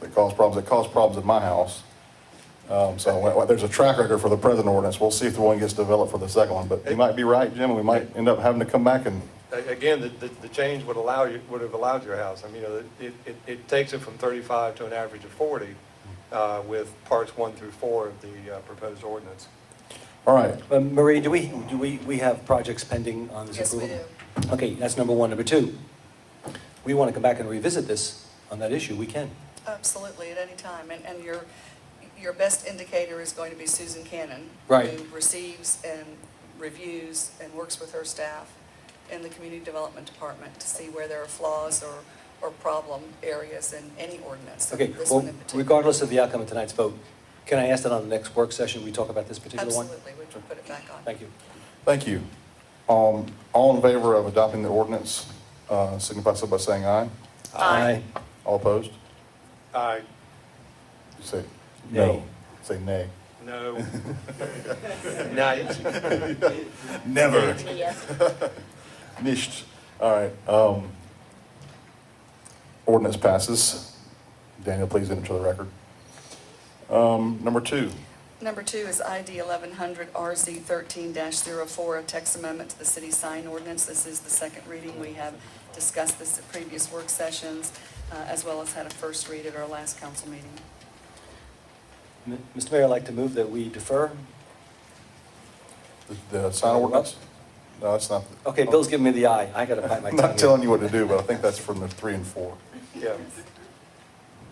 that cause problems, that caused problems at my house. Um, so well, there's a track record for the present ordinance. We'll see if the one gets developed for the second one, but you might be right, Jim, we might end up having to come back and, A- Again, the, the- the change would allow you, would have allowed your house. I mean, you know, it, it, it takes it from 35 to an average of 40 uh, with parts one through four of the uh, proposed ordinance. all right. But Uh, Marie, do we, do we, we have projects pending on this Yes, we approval? do. Okay, that's number one. Number two, we want to come back and revisit this on that issue, we can. Absolutely, at any time, and, and your, your best indicator is going to be Susan Cannon. Right. Who receives and reviews and works with her staff in the Community Development Department to see where there are flaws or, or problem areas in any ordinance. Okay, this one well, in particular. regardless of the outcome of tonight's vote, can I ask that on the next work session, we talk about this particular one? Absolutely, we can put it back on. Thank you. Thank you. Um, all in favor of adopting the ordinance, uh, signify so by saying aye. Aye. All opposed? I, Say Nay. no. Say nay. no. Night. Never. Nicht. All right. Um, ordinance passes. Daniel, please enter the record. Um, number two. Number two is ID 1100 RZ 13-04, a text amendment to the city sign ordinance. This is the second reading. We have discussed this at previous work sessions, uh, as well as had a first read at our last council meeting. M- Mr. Mayor, I'd like to move that we defer. The, the sign ordinance? No, that's not. Okay, Bill's giving me the eye, I gotta bite my I'm tongue. not telling you what to do, but I think that's from the three and four. Yeah.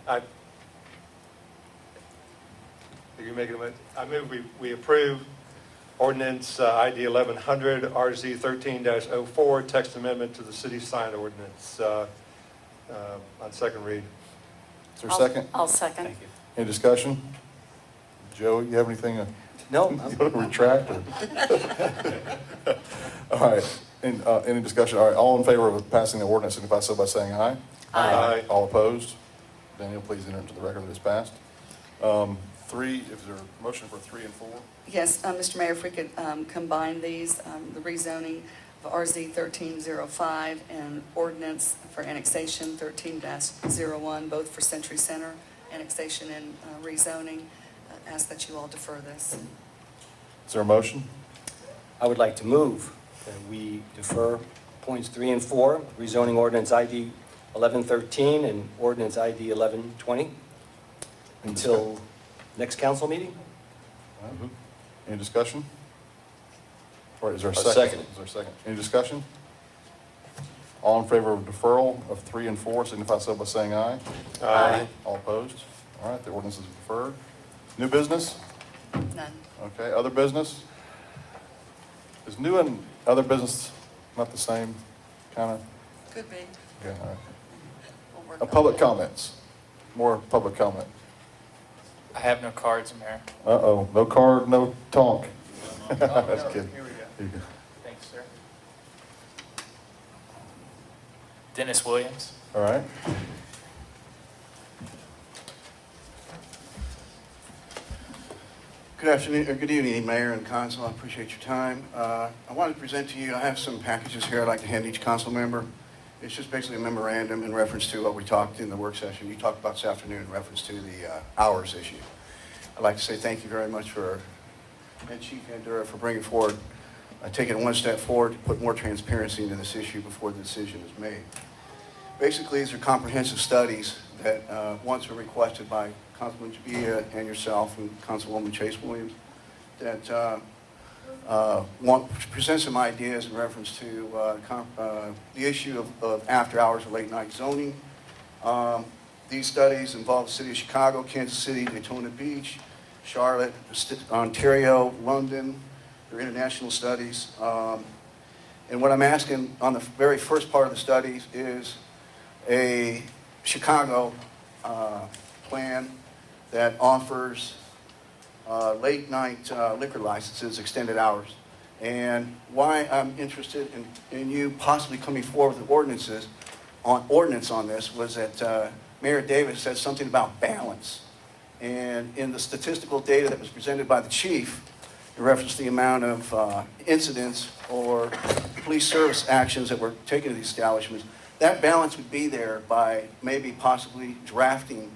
I, are you making a, mo- I move we, we approve ordinance uh, ID 1100 RZ 13-04, text amendment to the city sign ordinance uh, uh, on second read. Is there a second? I'll second. Thank you. Any discussion? Joe, you have anything? uh, No, You I'm- want to retract or? All right, and, uh, any discussion? All right, all in favor of passing the ordinance, signify so by saying aye. Aye. Aye. All opposed? Daniel, please enter into the record that it's passed. Um, three, is there a motion for three and four? Yes, uh, Mr. Mayor, if we could um, combine these, um, the rezoning of RZ 1305 and ordinance for annexation 13-01, both for Century Center, annexation and uh, rezoning, Uh, ask that you all defer this. Is there a motion? I would like to move that we defer points three and four, rezoning ordinance ID 1113 and ordinance ID 1120 until next council meeting? Mm-hmm. Any discussion? All right, is there a A second? second. Is there a second? Any discussion? All in favor of deferral of three and four, signify so by saying aye. Aye. All opposed? All right, the ordinance is deferred. New business? None. Okay, other business? Is new and other business not the same, kind of? Could be. Yeah, all right. We'll work Uh, on Public it. comments, more public comment. I have no cards, Mayor. Uh-oh, no card, no talk. That's no, kidding. here we go. Here you go. Thanks, sir. Dennis Williams. All right. Good afternoon, or good evening, Mayor and Council. I appreciate your time. Uh, I wanted to present to you, I have some packages here I'd like to hand each council member. It's just basically a memorandum in reference to what we talked in the work session, you talked about this afternoon in reference to the uh, hours issue. I'd like to say thank you very much for, and Chief Andura for bringing forward, uh, taking one step forward to put more transparency into this issue before the decision is made. Basically, these are comprehensive studies that uh, once were requested by Councilman Jabia and yourself and Councilwoman Chase Williams that uh, uh, want, present some ideas in reference to uh, com- uh, the issue of- of after-hours or late-night zoning. Um, These studies involve the city of Chicago, Kansas City, Daytona Beach, Charlotte, St- Ontario, London. They're international studies. Um, and what I'm asking on the very first part of the studies is a Chicago uh, plan that offers uh, late-night liquor licenses, extended hours. And why I'm interested in, in you possibly coming forward with ordinances, on, ordinance on this, was that uh, Mayor Davis said something about balance. And in the statistical data that was presented by the chief, in reference to the amount of uh, incidents or police service actions that were taken to these establishments, that balance would be there by maybe possibly drafting